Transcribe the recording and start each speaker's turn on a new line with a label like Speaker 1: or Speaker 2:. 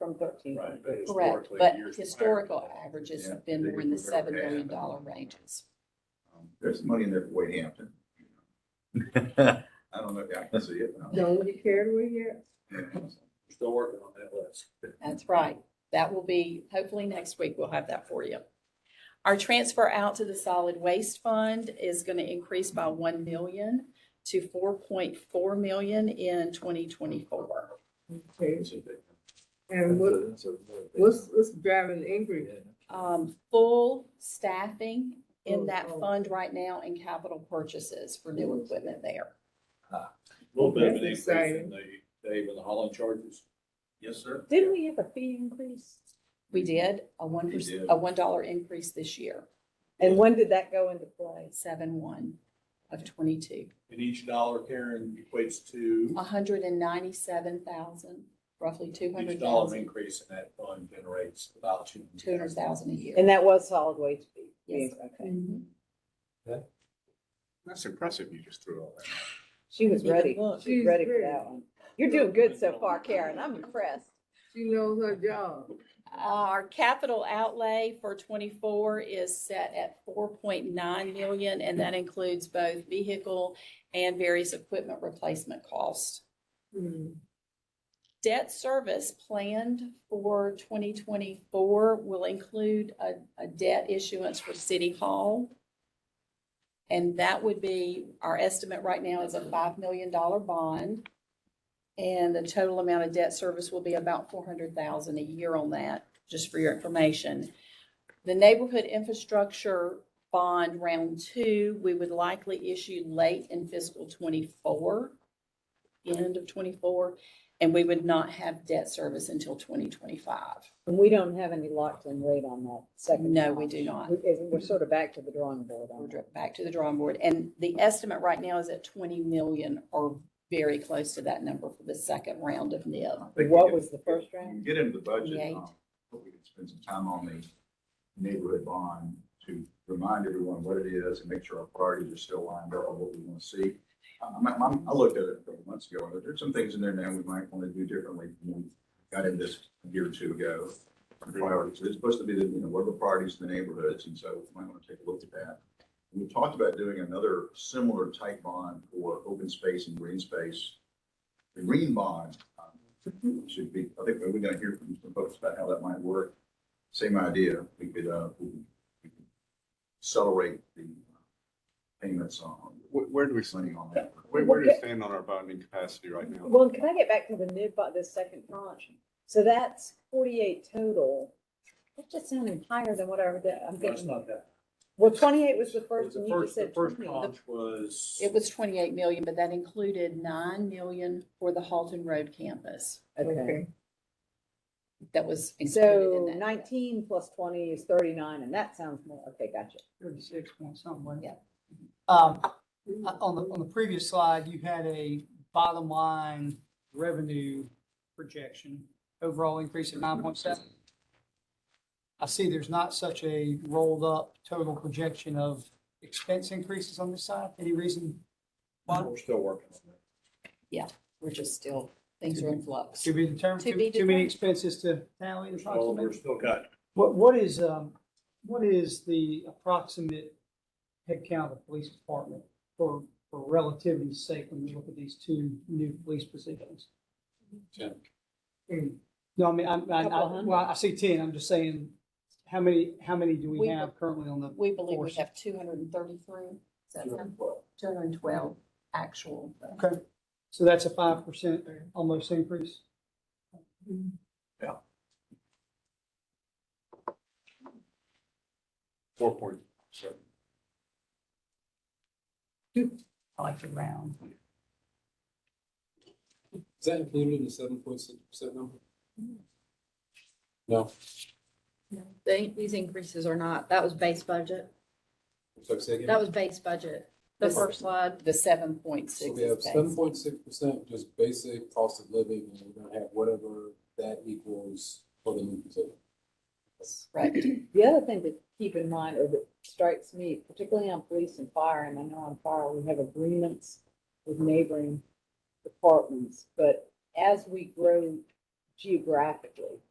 Speaker 1: from thirteen
Speaker 2: Right, but
Speaker 1: hundred.
Speaker 2: historically,
Speaker 3: Correct, but
Speaker 2: years prior-
Speaker 3: historical averages
Speaker 4: Yeah,
Speaker 3: have been more in the
Speaker 4: biggest we've ever
Speaker 3: seven million
Speaker 4: had.
Speaker 3: dollar ranges.
Speaker 4: Um, There's money in there for Wade Hampton. I don't know if I can see it. but I'm-
Speaker 1: Don't you care where you're at?
Speaker 2: We're Still working on that list.
Speaker 3: That's right. That will be, hopefully next week we'll have that for you. Our transfer out to the solid waste fund is going to increase by one million to four point four million in twenty twenty-four.
Speaker 1: Okay. And what, what's, what's driving the increase?
Speaker 3: Um, full staffing in that
Speaker 1: Oh, oh.
Speaker 3: fund right now and capital purchases for new equipment there.
Speaker 2: Little bit of an
Speaker 1: That's
Speaker 2: increase in the, Dave, in the hauling charges.
Speaker 4: Yes, sir.
Speaker 1: Didn't we have a fee increase?
Speaker 3: We did a one,
Speaker 4: You did.
Speaker 3: a one dollar increase this year,
Speaker 1: And when did that go into play?
Speaker 3: seven one of twenty-two.
Speaker 2: And each dollar, Karen, equates to
Speaker 3: hundred and ninety-seven thousand, roughly two
Speaker 2: each
Speaker 3: hundred
Speaker 2: dollar
Speaker 3: thousand,
Speaker 2: increase in that fund generates about two.
Speaker 3: two hundred thousand a year. Mm-hmm.
Speaker 1: And that was solid waste fee?
Speaker 3: Yes.
Speaker 1: Okay.
Speaker 4: That's impressive. You just threw all that.
Speaker 1: She was
Speaker 3: You can
Speaker 1: ready.
Speaker 3: look.
Speaker 1: She was
Speaker 5: She's
Speaker 1: ready for
Speaker 5: ready.
Speaker 1: that one. You're doing good so far, Karen. I'm impressed.
Speaker 5: She knows her job.
Speaker 3: Uh, Our capital outlay for twenty-four is set at four point nine million, and that includes both vehicle and various equipment replacement costs.
Speaker 1: Mm-hmm.
Speaker 3: Debt service planned for twenty twenty-four will include a, a debt issuance for City Hall. And that would be, our estimate right now is a five million dollar bond. And the total amount of debt service will be about four hundred thousand a year on that, just for your information. The neighborhood infrastructure bond round two, we would likely issue late in fiscal twenty-four, end of twenty-four, and we would not have debt service until twenty twenty-five.
Speaker 6: And we don't have any locked in rate on that second.
Speaker 3: No, we
Speaker 6: tranche.
Speaker 3: do not.
Speaker 6: We- it- We're sort of back to the drawing board
Speaker 3: We're
Speaker 6: on
Speaker 3: dr- back to the drawing board, and the estimate right now is at twenty million or very close to that number for the second round of NIB.
Speaker 4: They
Speaker 6: it.
Speaker 4: can
Speaker 6: What
Speaker 4: get-
Speaker 6: was the first
Speaker 4: we
Speaker 6: round?
Speaker 4: can Get into the budget.
Speaker 2: uh,
Speaker 3: Eight.
Speaker 4: um, Hope we can spend some time on the neighborhood bond to remind everyone what it is and make sure our priorities are still lined up on what we want to see. Um, I, I'm- I looked at it a couple months ago, and there's some things in there now we might want to do differently than we got in this a year or two ago. Priorities, it's supposed to be, the you know, what are the priorities in the neighborhoods, and so we might want to take a look at that. We talked about doing another similar type bond for open space and green space. The green bond um, should be, I think we're gonna hear from some folks about how that might work. Same idea, we could, uh, we could- we could accelerate the uh, payments on,
Speaker 7: Where, where do we
Speaker 4: planning
Speaker 7: stand?
Speaker 4: on that.
Speaker 7: Where, where do we stand on our bonding capacity right now?
Speaker 6: Well, can I get back to the NIB, bu- the second tranche? So that's forty-eight total. That just sounded higher than whatever that, I'm
Speaker 2: That's
Speaker 6: getting.
Speaker 2: not that.
Speaker 6: Well, twenty-eight was the first
Speaker 2: The
Speaker 6: and you just
Speaker 2: first, the
Speaker 6: said
Speaker 2: first
Speaker 6: twenty.
Speaker 2: tranche was.
Speaker 3: It was twenty-eight million, but that included nine million for the Halton Road campus.
Speaker 6: Okay,
Speaker 3: That was included in
Speaker 6: so
Speaker 3: that.
Speaker 6: nineteen plus twenty is thirty-nine and that sounds more, okay, gotcha.
Speaker 5: Thirty-six point something.
Speaker 3: Yeah.
Speaker 5: Um, uh, on the, on the previous slide, you had a bottom line revenue projection, overall increase of nine point seven. I see there's not such a rolled up total projection of expense increases on this side. Any reason? why?
Speaker 2: We're still working on that.
Speaker 3: We're just still, things are in flux.
Speaker 5: To be determined,
Speaker 3: To be
Speaker 5: too too
Speaker 3: determined.
Speaker 5: many expenses to tally
Speaker 2: Well,
Speaker 5: approximately?
Speaker 2: we're still got,
Speaker 5: What, what is, um, what is the approximate headcount of the police department for, for relativity's sake when we look at these two new police positions?
Speaker 2: Ten.
Speaker 5: Hmm. No, I mean, I, I,
Speaker 6: Couple
Speaker 5: I,
Speaker 6: hundred.
Speaker 5: well, I see ten, I'm just saying, how many, how many do
Speaker 3: We
Speaker 5: we have currently on the?
Speaker 3: We believe we
Speaker 5: Force.
Speaker 3: have two hundred and thirty-three, is that right? Two hundred and twelve actual.
Speaker 5: Okay, so that's a five percent almost increase?
Speaker 2: four point seven.
Speaker 5: I like the round.
Speaker 8: Is that included in the seven point six percent number? No,
Speaker 9: They, these increases are not, that was base budget.
Speaker 8: so say again.
Speaker 9: That was base budget, the
Speaker 3: This-
Speaker 9: first slide.
Speaker 3: The seven point
Speaker 8: So
Speaker 3: six
Speaker 8: we
Speaker 3: is
Speaker 8: have seven
Speaker 3: base.
Speaker 8: point six percent, just basic cost of living, and we're gonna have whatever that equals for the new position.
Speaker 3: Right.
Speaker 6: The other thing to keep in mind, or that strikes me, particularly on police and fire, and I know on fire, we have agreements with neighboring departments, but as we grow geographically,